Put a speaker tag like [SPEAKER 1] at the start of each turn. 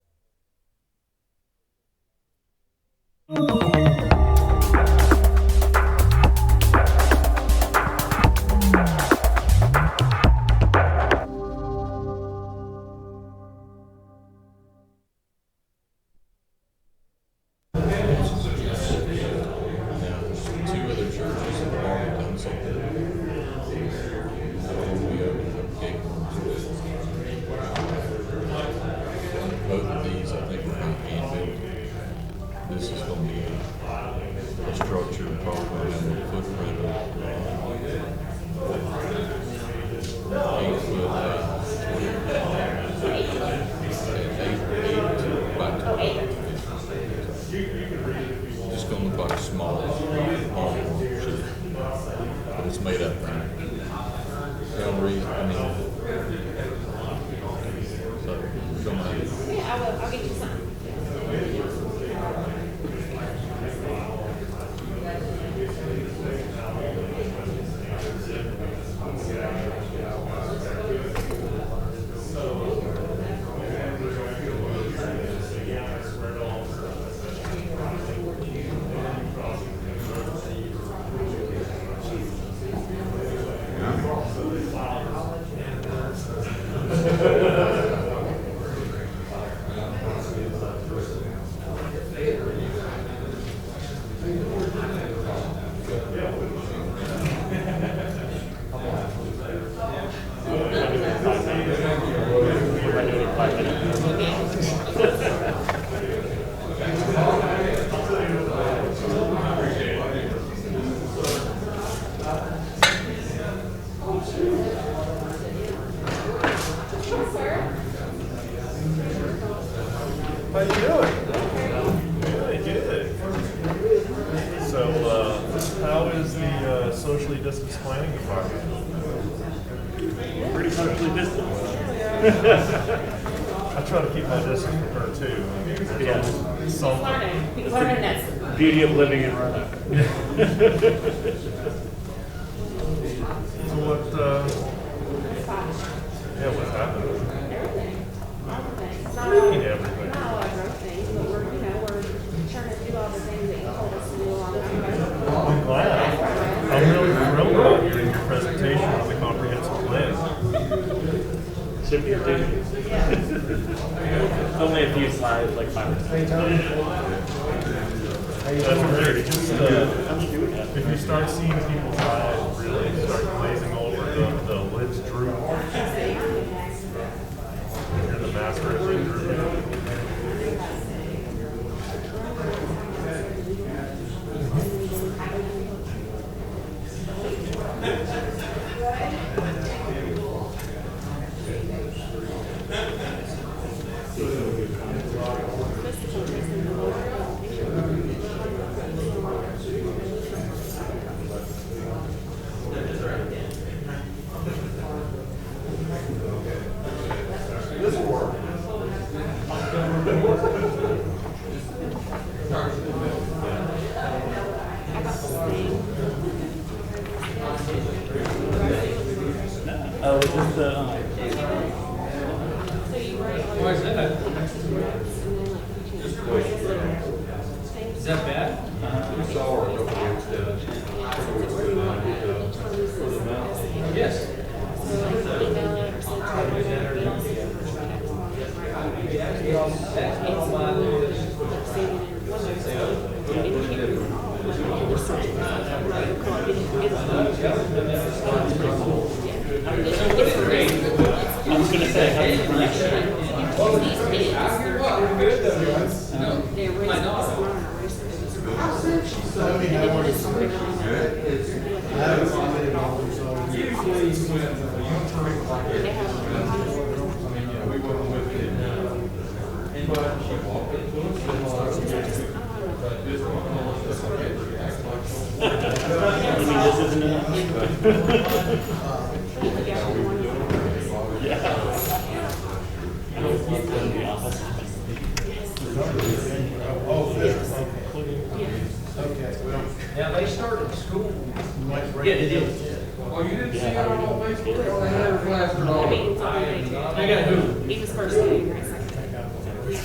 [SPEAKER 1] Two other churches have already done something. We opened up gate Both of these, I think, are going to This is going to be a structure probably in the footprint of uh, eight foot, uh, twenty. and Eight, eight by twenty. It's gonna look like a small home, shoot. but it's made up. Gallery, I mean. So, somebody,
[SPEAKER 2] Yeah, I will, I'll get you some.
[SPEAKER 3] How you doing? Good, good. So, uh, how is the uh, socially distanced planning department?
[SPEAKER 4] pretty socially distanced.
[SPEAKER 3] I try to keep my distance from her too. I mean, there's
[SPEAKER 4] Yeah.
[SPEAKER 3] always
[SPEAKER 2] He's
[SPEAKER 3] something.
[SPEAKER 2] learning, he's learning that.
[SPEAKER 4] Beauty of living in Roanoke.
[SPEAKER 3] So what? Uh, yeah, what's happening?
[SPEAKER 2] Everything, all the things. Not
[SPEAKER 3] What do you
[SPEAKER 2] all,
[SPEAKER 3] mean everything?
[SPEAKER 2] not all our growth things, but we're, you know, we're trying to do all the things that you told us to do along the way.
[SPEAKER 3] I'm glad. I'm really thrilled about your presentation on the comprehensive plan.
[SPEAKER 4] Should be a dish. Only a few slides, like five or six.
[SPEAKER 3] That's great. Just, uh,
[SPEAKER 4] How do you do that?
[SPEAKER 3] If you start seeing people's eyes really start glazing over, the, the lids droop. You're the master of lid drooping.
[SPEAKER 4] Oh, is this the, um,
[SPEAKER 5] Why is that? Is that bad?
[SPEAKER 1] we saw her a couple weeks ago. A couple weeks ago, and I did, uh, for the mountain.
[SPEAKER 5] Yes.
[SPEAKER 4] I was gonna say, how do you pronounce it?
[SPEAKER 2] They're raising this learner, raising this. They have.
[SPEAKER 4] I mean, this isn't enough.
[SPEAKER 5] Now, they started school. Yeah, they did.
[SPEAKER 1] Oh, you didn't see
[SPEAKER 4] Yeah, how do you do it?
[SPEAKER 1] Facebook? They had her plastered
[SPEAKER 2] I mean, it's all day.
[SPEAKER 5] They got who?
[SPEAKER 2] He was first.